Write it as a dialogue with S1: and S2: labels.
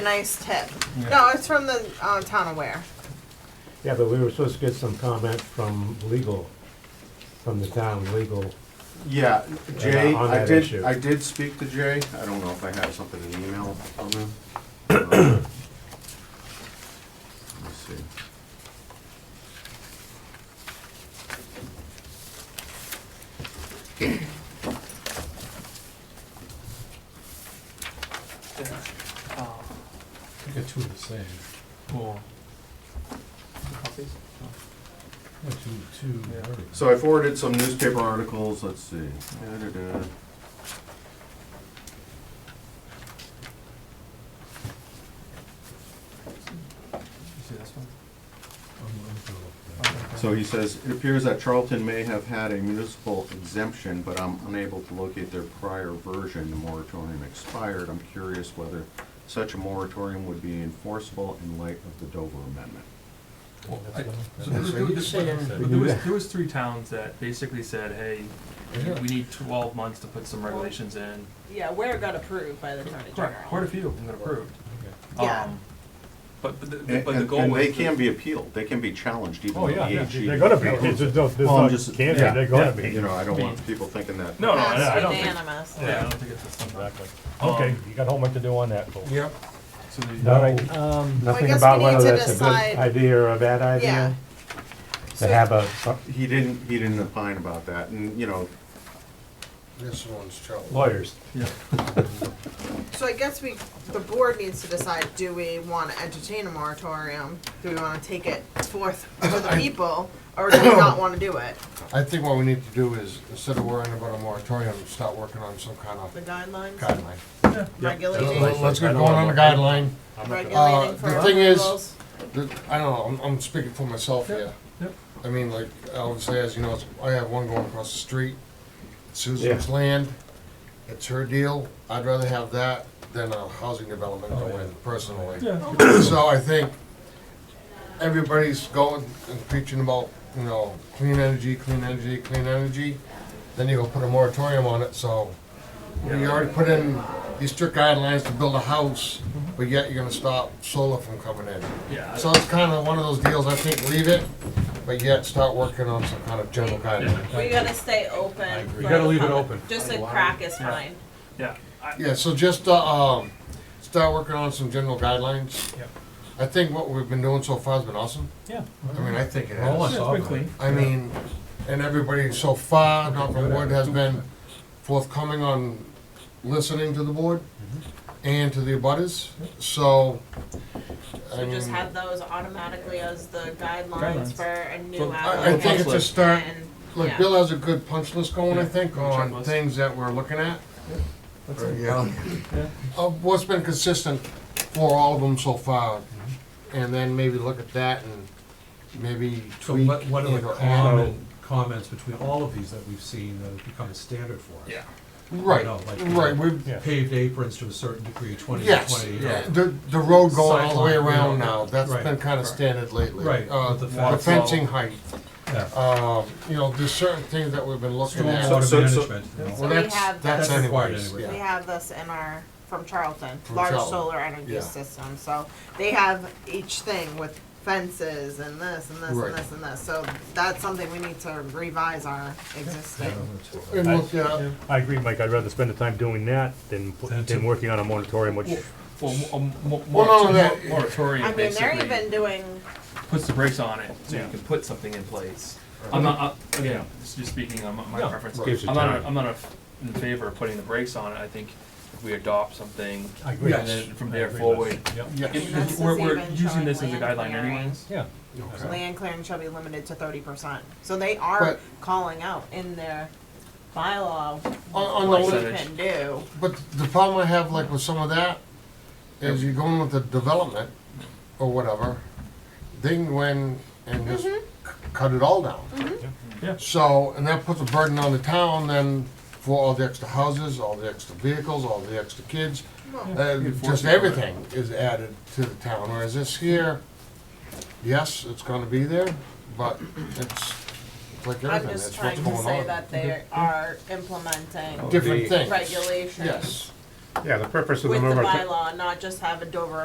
S1: Nice tip.
S2: Yeah.
S1: No, it's from the uh, town of Ware.
S3: Yeah, but we were supposed to get some comment from legal, from the town legal.
S4: Yeah, Jay,
S3: on
S4: I
S3: that
S4: did,
S3: issue.
S4: I did speak to Jay, I don't know if I have something in email from him. Uh, Let's see.
S2: I got two of the same. Cool. Copies? Two, two.
S4: So I forwarded some newspaper articles, let's see. Da-da-da.
S2: You see this one?
S4: So he says, it appears that Charlton may have had a municipal exemption, but I'm unable to locate their prior version. The moratorium expired. I'm curious whether such a moratorium would be enforceable in light of the Dover Amendment.
S2: So there was- there was- There was, there was three towns that basically said, hey, we need twelve months to put some regulations in.
S1: Yeah, Ware got approved by the attorney
S2: Correct, quite a few have been approved.
S1: Yeah.
S2: Um, But, but the,
S4: And
S2: but the
S4: and-
S2: goal
S4: and
S2: was.
S4: they can be appealed. They can be challenged even
S2: Oh,
S4: though the
S2: yeah, yeah,
S4: AG.
S3: They're gonna be, there's no, there's
S4: Well, I'm
S3: no,
S4: just-
S3: can't be,
S2: yeah,
S3: they're gonna
S2: yeah.
S3: be.
S4: You know, I don't want people thinking that.
S2: No, no, I I don't think,
S1: unanimous.
S2: yeah, I don't think it's just something.
S3: Exactly. Okay, you got homework to do on that, folks.
S2: Yep. So the-
S3: All right,
S1: Um, Well, I
S3: nothing
S1: guess
S3: about
S1: we need
S3: whether
S1: to
S3: that's a
S1: decide-
S3: good idea or a bad
S1: Yeah.
S3: idea, to
S1: So-
S3: have a,
S4: He didn't, he didn't opine about that and, you know,
S5: This one's trouble.
S3: lawyers.
S2: Yeah.
S1: So I guess we, the board needs to decide, do we want to entertain a moratorium? Do we want to take it forth to the people, or do we not want to do it?
S5: I think what we need to do is, instead of worrying about a moratorium, start working on some kind
S1: The
S5: of
S1: guidelines,
S5: guideline.
S1: regulating,
S5: Let's get going on a guideline.
S3: Uh,
S1: regulating for
S5: the thing is-
S1: approvals.
S5: The- I don't know, I'm, I'm speaking for myself here.
S2: Yep.
S5: I mean, like Alvin says, you know, it's- I have one going across the street, It's Susan's
S3: Yeah.
S5: land, it's her deal. I'd rather have that than a housing development go in personally.
S2: Oh, Yeah,
S5: So I think everybody's going and preaching about, you know, clean energy, clean energy, clean energy. Then you go put a moratorium on it, so you already put in these strict guidelines to build a house, but yet you're gonna stop solar from coming in.
S2: yeah.
S5: So it's kind of one of those deals, I think, leave it, but yet start working on some kind of general guideline.
S6: We gotta stay open.
S3: agree.
S6: for
S3: You gotta
S6: the
S3: leave it
S6: public.
S3: open.
S6: Just a crack is
S2: Yeah.
S6: fine.
S2: Yeah, I,
S5: Yeah, so just, uh, um, start working on some general guidelines.
S2: Yep.
S5: I think what we've been doing so far has been awesome.
S2: yeah.
S5: I mean, I think it has.
S2: Yeah, it's been clean.
S5: I mean, and everybody so far, knock on wood, has been forthcoming on listening to the board
S7: Mm-hmm.
S5: and to the abutters, so, I
S6: So just
S5: mean,
S6: have those automatically as the guidelines
S2: Guidelines.
S6: for a
S2: So
S6: new
S5: I, I
S6: applicant.
S5: think it's just start,
S6: And-
S5: like,
S6: yeah.
S5: Bill has a good punch list going, I
S2: Yeah,
S5: think, on
S2: checklist.
S5: things that we're looking at.
S2: That's it.
S7: Um,
S5: Yeah.
S2: Yeah.
S5: Of what's been consistent for all of them so far, and then maybe look at that and maybe
S7: Mm-hmm. So
S5: tweak.
S7: what, what are
S5: and
S7: the
S5: or add.
S7: common comments between all of these that we've seen that have become a standard for us?
S2: Yeah.
S5: Right,
S7: No, like-
S5: right, we've,
S3: Yeah.
S7: Paved aprons to a certain degree, twenty to
S5: Yes,
S7: twenty.
S2: yeah.
S5: the, the road going all the way
S7: Sideline, you
S5: around
S7: know,
S5: now, that's
S7: right,
S5: been kinda
S2: right.
S5: standard lately.
S7: Right,
S5: Uh,
S7: with the
S5: the
S7: fence.
S5: fencing height,
S7: Yeah.
S5: um, you know, there's certain things that we've been looking at.
S4: So-
S7: Stormwater
S4: so- so-
S7: management. you know.
S1: So
S5: Well,
S1: we
S5: that's,
S1: have
S5: that's
S7: That's required
S5: anyways,
S7: anyway.
S1: We
S5: yeah.
S1: have this in our, from Charlton,
S5: From
S1: large
S5: Charlton,
S1: solar energy
S5: yeah.
S1: system, so they have each thing with fences and this and this
S5: Right.
S1: and this and this, so that's something we need to revise our existing.
S5: And look, yeah,
S3: I agree, Mike, I'd rather spend the time doing that than,
S7: Than to-
S3: than working on a moratorium, which,
S2: Well, a mo-
S5: Well, no, that-
S2: moratorium, moratorium
S1: I mean, they're
S2: basically
S1: even doing,
S2: puts the brakes on it, so
S3: Yeah.
S2: you can put something in place. I'm not, I- again, this is just speaking on my- my
S3: Yeah.
S2: preference.
S3: Gives you
S2: I'm not,
S3: time.
S2: I'm not a- in favor of putting the brakes on it, I think if we adopt something,
S3: I agree.
S2: and then from there
S3: I agree with-
S2: forward.
S3: Yep.
S5: yes,
S2: If-
S1: That's
S2: if
S1: the
S2: We're,
S1: same
S2: we're
S1: in
S2: using this as
S1: showing
S2: a
S1: land
S2: guideline
S1: clearing.
S2: anyways.
S7: Yeah.
S5: okay.
S1: land clearing shall be limited to thirty percent, so they are
S5: But-
S1: calling out in their bylaw
S5: On, on
S1: what
S5: the,
S1: you
S5: li-
S2: Percentage.
S1: can do.
S5: but the problem I have like with some of that is you're going with the development or whatever, they can go in and just c-
S1: Mm-hmm.
S5: cut it all down.
S2: Yeah.
S5: So, and that puts a burden on the town then for all the extra houses, all the extra vehicles, all the extra kids. Uh, Just
S2: Enforcement.
S5: everything is added to the town, whereas this here, yes, it's gonna be there, but it's it's like
S1: I'm
S5: everything,
S1: just
S5: it's what's
S1: trying to
S5: going
S1: say
S5: on. Oh.
S1: that they are implementing
S3: The-
S5: Different things.
S1: regulations
S5: Yes.
S3: Yeah, the purpose of the
S1: with the
S3: moratorium.
S1: bylaw, not just have a Dover